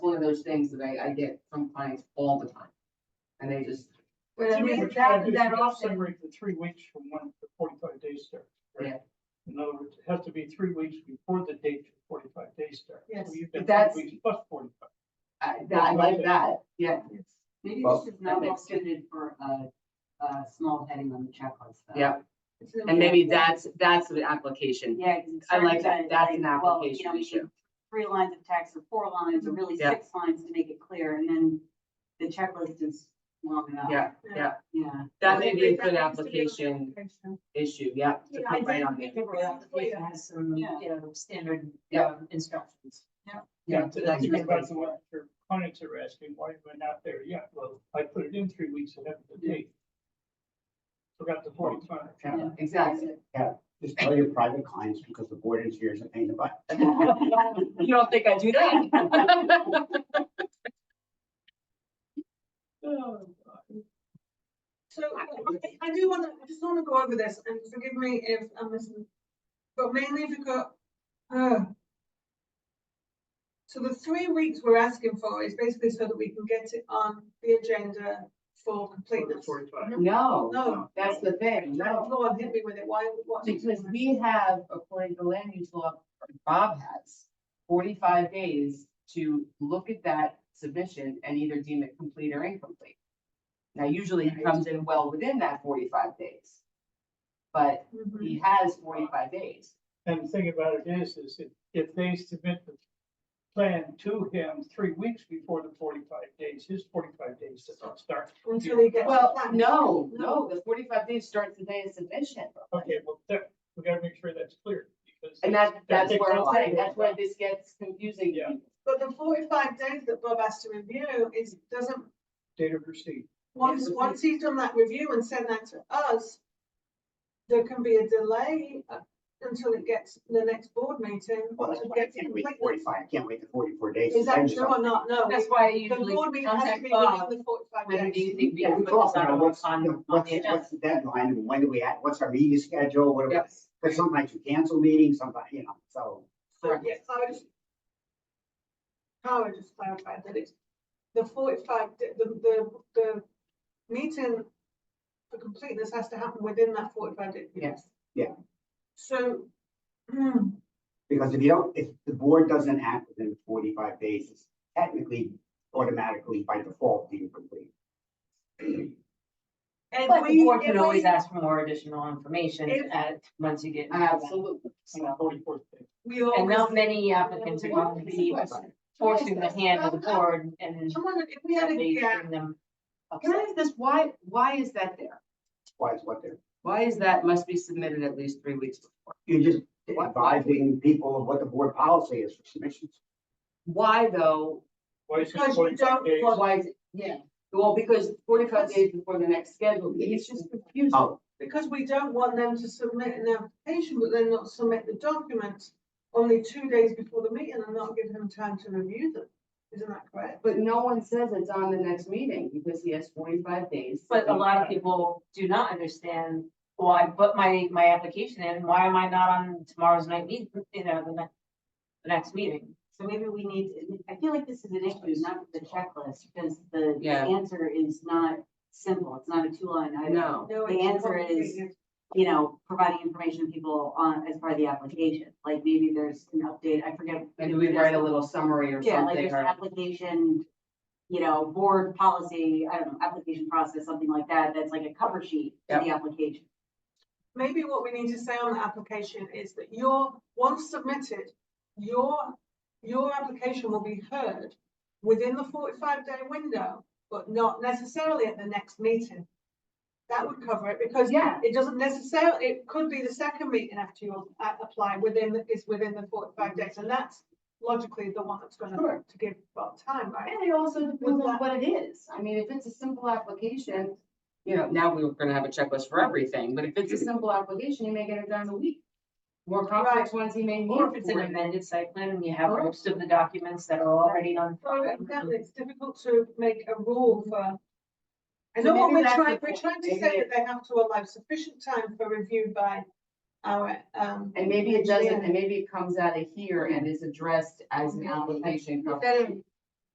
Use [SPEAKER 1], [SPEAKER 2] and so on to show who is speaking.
[SPEAKER 1] those things that I, I get from clients all the time. And they just,
[SPEAKER 2] But I
[SPEAKER 3] Two
[SPEAKER 2] mean,
[SPEAKER 3] weeks,
[SPEAKER 2] that,
[SPEAKER 3] but
[SPEAKER 2] that
[SPEAKER 3] you
[SPEAKER 2] also,
[SPEAKER 3] Separate the three weeks from when the forty-five days start. right?
[SPEAKER 1] Yeah.
[SPEAKER 3] In other words, it has to be three weeks before the date of forty-five days start.
[SPEAKER 2] Yes.
[SPEAKER 3] So you've got
[SPEAKER 1] But that's-
[SPEAKER 3] three weeks plus forty-five.
[SPEAKER 1] I, that- I like that, yeah.
[SPEAKER 4] Maybe
[SPEAKER 5] Well-
[SPEAKER 4] this is not well suited for a, a small heading on the checklist. though.
[SPEAKER 1] Yeah. And maybe that's, that's the application.
[SPEAKER 4] Yeah. 'cause it's
[SPEAKER 1] I like that.
[SPEAKER 4] certain,
[SPEAKER 1] That's an
[SPEAKER 4] like, well, you
[SPEAKER 1] application
[SPEAKER 4] know, we
[SPEAKER 1] issue.
[SPEAKER 4] need Three lines of text or four lines or really
[SPEAKER 1] Yeah.
[SPEAKER 4] six lines to make it clear and then the checklist is long enough.
[SPEAKER 1] Yeah, yeah.
[SPEAKER 4] Yeah.
[SPEAKER 1] That may be a good
[SPEAKER 2] That needs to be on the
[SPEAKER 1] application
[SPEAKER 2] application.
[SPEAKER 1] issue, yeah. to
[SPEAKER 2] Yeah,
[SPEAKER 1] put
[SPEAKER 2] I
[SPEAKER 1] right
[SPEAKER 2] did
[SPEAKER 1] on
[SPEAKER 2] think
[SPEAKER 1] there.
[SPEAKER 2] of it.
[SPEAKER 6] application has some, you know, standard
[SPEAKER 1] Yeah.
[SPEAKER 6] um, instructions.
[SPEAKER 1] Yeah,
[SPEAKER 3] And to-
[SPEAKER 1] that's
[SPEAKER 3] and
[SPEAKER 1] good.
[SPEAKER 3] That's what your clients are asking, why am I not there yet? Well, I put it in three weeks ahead of the date. Forgot the forty-five.
[SPEAKER 1] Yeah, Exactly.
[SPEAKER 5] Just tell your private clients because the board engineers are paying the butt.
[SPEAKER 6] You don't think I do that?
[SPEAKER 2] So I- I do want to, I just want to go over this and forgive me if I'm missing, but mainly because, uh. So the three weeks we're asking for is basically so that we can get it on the agenda
[SPEAKER 3] For
[SPEAKER 2] for
[SPEAKER 3] the
[SPEAKER 2] completeness.
[SPEAKER 3] Forty-five.
[SPEAKER 1] No,
[SPEAKER 2] No,
[SPEAKER 1] that's the thing, no.
[SPEAKER 2] Lord, hit me with it, why, what?
[SPEAKER 1] Because we have, according to land use law, Bob has forty-five days to look at that submission and either deem it complete or incomplete. Now, usually it comes in well within that forty-five days. But
[SPEAKER 2] Mhm.
[SPEAKER 1] he has forty-five days.
[SPEAKER 3] And the thing about it is, is if, if they submit the plan to him three weeks before the forty-five days, his forty-five days doesn't start.
[SPEAKER 2] Until he gets. the
[SPEAKER 1] Well,
[SPEAKER 2] plan.
[SPEAKER 1] no, no, the forty-five days starts the day of submission.
[SPEAKER 3] Okay, well, that, we gotta make sure that's clear, because.
[SPEAKER 1] And that, that's
[SPEAKER 3] takes
[SPEAKER 1] where
[SPEAKER 3] a
[SPEAKER 1] I'm
[SPEAKER 3] lot.
[SPEAKER 1] saying, that's where this gets confusing.
[SPEAKER 3] Yeah.
[SPEAKER 2] But the forty-five days that Bob has to review is, doesn't,
[SPEAKER 3] Data receipt.
[SPEAKER 2] once,
[SPEAKER 1] Yeah.
[SPEAKER 2] once he's done that review and sent that to us, there can be a delay uh, until it gets to the next board meeting.
[SPEAKER 5] Well, that's
[SPEAKER 2] to
[SPEAKER 5] why I
[SPEAKER 2] get to
[SPEAKER 5] can't wait
[SPEAKER 2] completeness.
[SPEAKER 5] forty-five, I can't wait the forty-four days. to
[SPEAKER 2] Is that
[SPEAKER 5] send you
[SPEAKER 2] true
[SPEAKER 5] something.
[SPEAKER 2] or not? No.
[SPEAKER 6] That's why I
[SPEAKER 2] The
[SPEAKER 6] usually
[SPEAKER 2] board meeting has to
[SPEAKER 6] contact
[SPEAKER 2] be
[SPEAKER 6] Bob.
[SPEAKER 2] within the
[SPEAKER 6] Whether
[SPEAKER 2] forty-five
[SPEAKER 6] do you
[SPEAKER 2] days.
[SPEAKER 6] think we
[SPEAKER 5] Yeah,
[SPEAKER 6] can
[SPEAKER 5] we
[SPEAKER 6] put this
[SPEAKER 5] talked
[SPEAKER 6] on,
[SPEAKER 5] about what's,
[SPEAKER 6] on, on
[SPEAKER 5] what's,
[SPEAKER 6] the agenda?
[SPEAKER 5] what's the deadline and when do we add, what's our meeting schedule? What, do-
[SPEAKER 1] Yes.
[SPEAKER 5] there's some nights you cancel meetings, somebody, you know, so.
[SPEAKER 1] Correct.
[SPEAKER 2] Yes, I was. Howard just clarified that it's the forty-five, d- the, the, the meeting for completeness has to happen within that forty-five day. period.
[SPEAKER 1] Yes.
[SPEAKER 2] So, hmm,
[SPEAKER 5] Because if you don't, if the board doesn't act within forty-five days, it's technically automatically by default being complete.
[SPEAKER 2] and
[SPEAKER 6] But
[SPEAKER 2] we.
[SPEAKER 6] the board
[SPEAKER 2] if
[SPEAKER 6] can
[SPEAKER 2] we-
[SPEAKER 6] always ask for more additional information
[SPEAKER 2] If-
[SPEAKER 6] at, once you get.
[SPEAKER 1] Absolutely.
[SPEAKER 3] on the 44th day.
[SPEAKER 2] We
[SPEAKER 6] And
[SPEAKER 2] always.
[SPEAKER 6] not many applicants are going to be forcing the hand of the board and
[SPEAKER 2] Come on, if we had a
[SPEAKER 6] they
[SPEAKER 2] gap,
[SPEAKER 6] bring them.
[SPEAKER 1] Can
[SPEAKER 6] upset.
[SPEAKER 1] I ask this, why, why is that there?
[SPEAKER 5] Why is what they're,
[SPEAKER 1] Why is that must be submitted at least three weeks before?
[SPEAKER 5] you're just advising people of what the board policy is for submissions.
[SPEAKER 1] Why though?
[SPEAKER 3] Why is
[SPEAKER 2] Because
[SPEAKER 3] it
[SPEAKER 2] you
[SPEAKER 3] forty-five
[SPEAKER 2] don't
[SPEAKER 3] days?
[SPEAKER 2] want-
[SPEAKER 1] Why is it? Yeah. Well, because forty-five days before the next schedule, it's just confusing.
[SPEAKER 5] Oh,
[SPEAKER 2] because we don't want them to submit an application, but then not submit the document only two days before the meeting and not give them time to review them. Isn't that correct?
[SPEAKER 1] But no one says it's on the next meeting because he has forty-five days.
[SPEAKER 6] But a lot of people do not understand, well, I put my, my application in, why am I not on tomorrow's night meeting, you know, the next, the next meeting?
[SPEAKER 4] So maybe we need, to- I feel like this is an issue, not with the checklist, because the the
[SPEAKER 1] Yeah.
[SPEAKER 4] answer is not simple. It's not a two line item.
[SPEAKER 1] No.
[SPEAKER 2] No,
[SPEAKER 4] The
[SPEAKER 2] it's
[SPEAKER 4] answer is-
[SPEAKER 2] complicated.
[SPEAKER 4] you know, providing information to people on, as part of the application. Like maybe there's an update, I forget.
[SPEAKER 1] Maybe we write a little summary or
[SPEAKER 4] Yeah,
[SPEAKER 1] something
[SPEAKER 4] like there's an
[SPEAKER 1] or,
[SPEAKER 4] application, you know, board policy, I don't know, application process, something like that, that's like a cover sheet to the application.
[SPEAKER 2] Maybe what we need to say on the application is that your, once submitted, your, your application will be heard within the forty-five day window, but not necessarily at the next meeting. That would cover it because
[SPEAKER 1] yeah,
[SPEAKER 2] it doesn't necessarily, it could be the second meeting after you a- apply within, the- is within the forty-five days. And that's logically the one that's gonna,
[SPEAKER 1] Sure.
[SPEAKER 2] to give about time, right?
[SPEAKER 1] and it also depends on what it is. I mean, if it's a simple application, you know, now we we're gonna have a checklist for everything, but if it's a simple application, you may get it done in a week. More complex ones, you may need.
[SPEAKER 6] Or if it's an
[SPEAKER 1] four days.
[SPEAKER 6] amended site plan and you have most of the documents that are already on.
[SPEAKER 2] So exactly, it's difficult to make a rule for. I
[SPEAKER 1] So
[SPEAKER 2] know what
[SPEAKER 1] maybe
[SPEAKER 2] we're
[SPEAKER 1] that's
[SPEAKER 2] trying,
[SPEAKER 1] the
[SPEAKER 2] we're
[SPEAKER 1] point.
[SPEAKER 2] trying to
[SPEAKER 1] Maybe
[SPEAKER 2] say
[SPEAKER 1] it-
[SPEAKER 2] that they have to allow sufficient time for review by our, um.
[SPEAKER 1] And maybe it doesn't,
[SPEAKER 2] engineer.
[SPEAKER 1] and maybe it comes out of here and is addressed as an application.
[SPEAKER 2] Instead of